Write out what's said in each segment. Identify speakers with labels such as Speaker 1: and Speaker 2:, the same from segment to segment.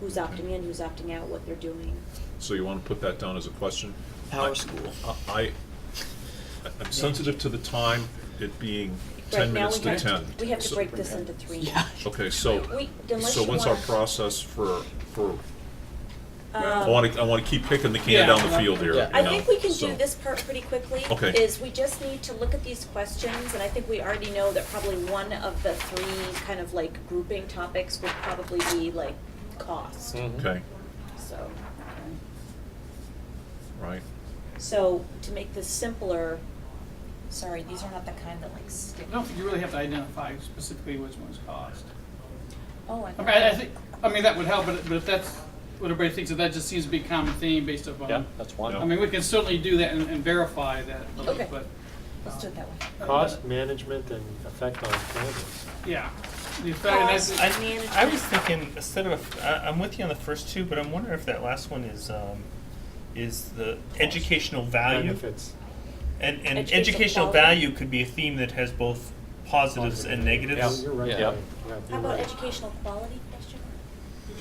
Speaker 1: who's opting in, who's opting out, what they're doing.
Speaker 2: So you want to put that down as a question?
Speaker 3: Power
Speaker 2: I-
Speaker 3: school.
Speaker 2: I, I- I'm sensitive to the time, it being ten minutes to
Speaker 1: Right now,
Speaker 2: ten.
Speaker 1: we have to, we have to
Speaker 2: So-
Speaker 1: break this into three.
Speaker 3: Yeah.
Speaker 2: Okay, so,
Speaker 1: We- unless
Speaker 2: so
Speaker 1: you
Speaker 2: what's our
Speaker 1: wanna-
Speaker 2: process for, for, I
Speaker 1: Um,
Speaker 2: want to, I want to keep kicking the
Speaker 3: Yeah,
Speaker 2: can down the
Speaker 3: well,
Speaker 2: field here,
Speaker 3: yeah.
Speaker 2: you
Speaker 1: I
Speaker 2: know,
Speaker 1: think we can
Speaker 2: so-
Speaker 1: do this part pretty quickly.
Speaker 2: Okay.
Speaker 1: Is we just need to look at these questions, and I think we already know that probably one of the three kind of like grouping topics would probably be like cost,
Speaker 2: Okay,
Speaker 1: so.
Speaker 2: right,
Speaker 1: So to make this simpler, sorry, these are not the kind that like
Speaker 4: I
Speaker 1: stick.
Speaker 4: don't think you really have to identify specifically which one's cost.
Speaker 1: Oh, I
Speaker 4: I mean, I I
Speaker 1: thought,
Speaker 4: think, I mean, that would help, but but if that's what everybody thinks, that that just seems to be a common theme based upon.
Speaker 5: Yeah, that's
Speaker 2: Yeah.
Speaker 4: I
Speaker 5: one.
Speaker 4: mean, we can certainly do that and and verify that,
Speaker 1: Okay.
Speaker 4: but,
Speaker 1: let's do it that way.
Speaker 5: Cost management and effect on cannabis.
Speaker 4: yeah. The fact- and that's-
Speaker 1: Cost.
Speaker 6: I,
Speaker 1: Management.
Speaker 6: I was thinking instead of I, I'm with you on the first two, but I'm wondering if that last one is um, is the educational value
Speaker 5: Benefits.
Speaker 6: and and
Speaker 1: Educational
Speaker 6: educational
Speaker 1: quality.
Speaker 6: value could be a theme that has both positives and negatives.
Speaker 5: Yeah, you're right.
Speaker 3: Yeah.
Speaker 5: Larry. Yeah,
Speaker 1: How
Speaker 5: you're
Speaker 1: about
Speaker 5: right.
Speaker 1: educational quality question?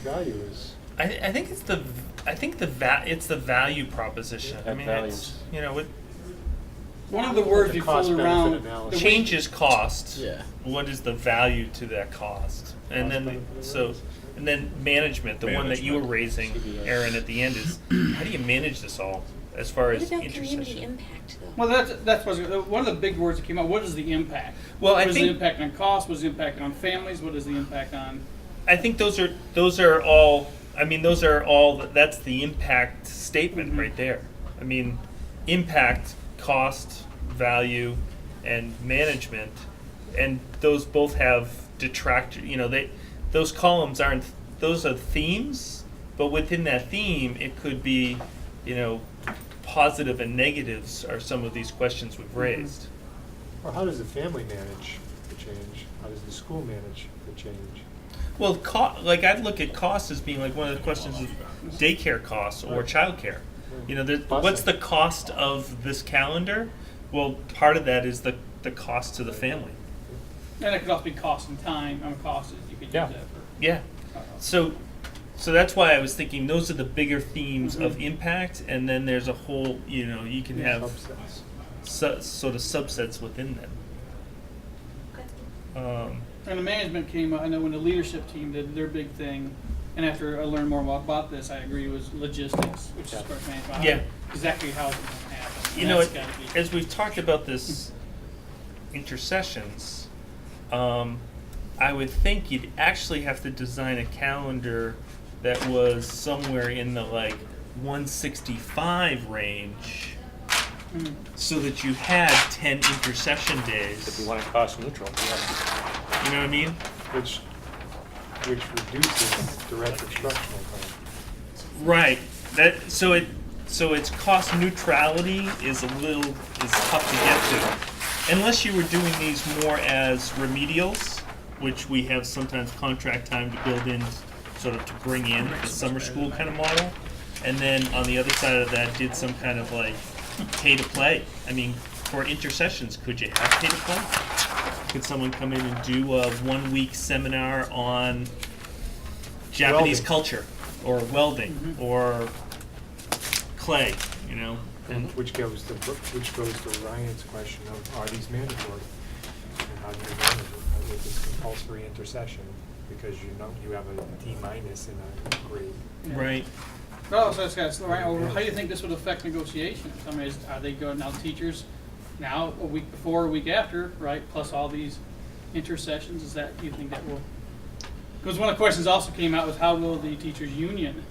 Speaker 5: Value is,
Speaker 6: I, I think it's the v- I think the va- it's the value proposition. I
Speaker 5: Add
Speaker 6: mean, it's,
Speaker 5: values.
Speaker 6: you know, it
Speaker 4: One of the words
Speaker 5: The
Speaker 4: you
Speaker 5: cost
Speaker 4: fool
Speaker 5: benefit
Speaker 4: around.
Speaker 5: analysis.
Speaker 4: the way-
Speaker 6: changes cost.
Speaker 3: Yeah.
Speaker 6: What is the value to that cost? And then the- so and then management, the one that you were raising,
Speaker 5: Management.
Speaker 6: Aaron, at the end is how do you manage this all as far
Speaker 1: What
Speaker 6: as
Speaker 1: about community
Speaker 6: intersection?
Speaker 1: impact though?
Speaker 4: Well, that's, that's what's, one of the big words that came out, what is the impact?
Speaker 6: Well, I
Speaker 4: What is the
Speaker 6: think-
Speaker 4: impact on cost, what is the impact on families, what is the impact on?
Speaker 6: I think those are those are all. I mean, those are all. That's the impact statement right there. I mean, impact, cost, value, and management, and those both have detractor. You know, they those columns aren't. Those are themes, but within that theme, it could be, you know, positive and negatives are some of these questions we've raised.
Speaker 5: or how does the family manage the change? How does the school manage the change?
Speaker 6: Well, co- like I'd look at cost as being like one of the questions of daycare costs or childcare. You know, there- what's the cost of this calendar? Well, part of that is the, the cost to the family.
Speaker 4: And it could also be cost and time, on costs, you could use
Speaker 5: Yeah.
Speaker 4: that for. uh,
Speaker 6: Yeah. So, so that's why I was thinking those are the bigger themes of impact, and then there's a whole you know you can have
Speaker 5: Subsets.
Speaker 6: su- sort of subsets within them. Um,
Speaker 4: And the management came, I know when the leadership team did their big thing, and after I learned more about, about this, I agree was logistics, which is
Speaker 5: Yeah.
Speaker 4: part management.
Speaker 6: Yeah.
Speaker 4: Exactly how it's gonna happen.
Speaker 6: you know,
Speaker 4: That's
Speaker 6: it,
Speaker 4: gotta be-
Speaker 6: as we've talked about this intercessions, um, I would think you'd actually have to design a calendar that was somewhere in the like 165 range,
Speaker 4: Mm.
Speaker 6: so that you had 10 intercession days.
Speaker 3: If we want it cost neutral, yeah.
Speaker 6: you know what I mean?
Speaker 5: Which, which reduces direct instructional time.
Speaker 6: Right. That so it so its cost neutrality is a little is tough to get to, unless you were doing these more as remedials, which we have sometimes contract time to build in, sort of to bring in the summer school kind of model, and then on the other side of that did some kind of like pay to play. I mean, for intercessions, could you have pay to play? Could someone come in and do a one week seminar on Japanese
Speaker 5: Welding.
Speaker 6: culture or welding or clay, you know? And
Speaker 5: Which goes to, which goes to Ryan's question of, are these mandatory? And how do you manage it with this compulsory intercession? Because you know, you have a D minus in a grade.
Speaker 4: Yeah.
Speaker 6: right.
Speaker 4: But also, it's got, right, well, how do you think this would affect negotiations? I mean, is, are they going, now teachers, now, a week before, a week after, right, plus all these intercessions, is that, do you think that will? Because one of the questions also came out was how will the teachers' union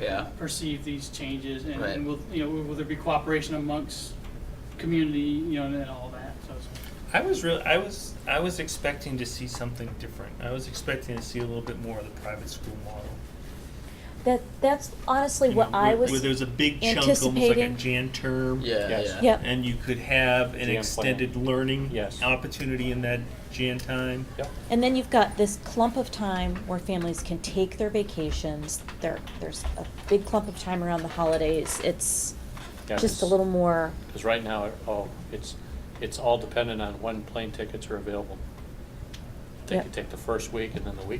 Speaker 3: Yeah.
Speaker 4: perceive these changes? And
Speaker 3: Right.
Speaker 4: and will, you know, will there be cooperation amongst community, you know, and all that, so. it's-
Speaker 6: I was real I was I was expecting to see something different. I was expecting to see a little bit more of the private school model.
Speaker 7: That that's honestly
Speaker 6: you
Speaker 7: what
Speaker 6: know,
Speaker 7: I
Speaker 6: where,
Speaker 7: was.
Speaker 6: where there's a big chunk almost like a
Speaker 7: anticipating.
Speaker 6: Jan term.
Speaker 3: Yeah,
Speaker 5: Yes.
Speaker 3: yeah.
Speaker 7: Yep.
Speaker 6: And you could have an
Speaker 3: Jan plan.
Speaker 6: extended learning
Speaker 3: Yes.
Speaker 6: opportunity in that Jan time.
Speaker 7: And then you've got this clump of time where families can take their vacations. There, there's a big clump of time around the holidays. It's just a little more.
Speaker 3: Because right now, it all, it's, it's all dependent on when plane tickets are available. They
Speaker 7: Yep.
Speaker 3: could take the first week and then the week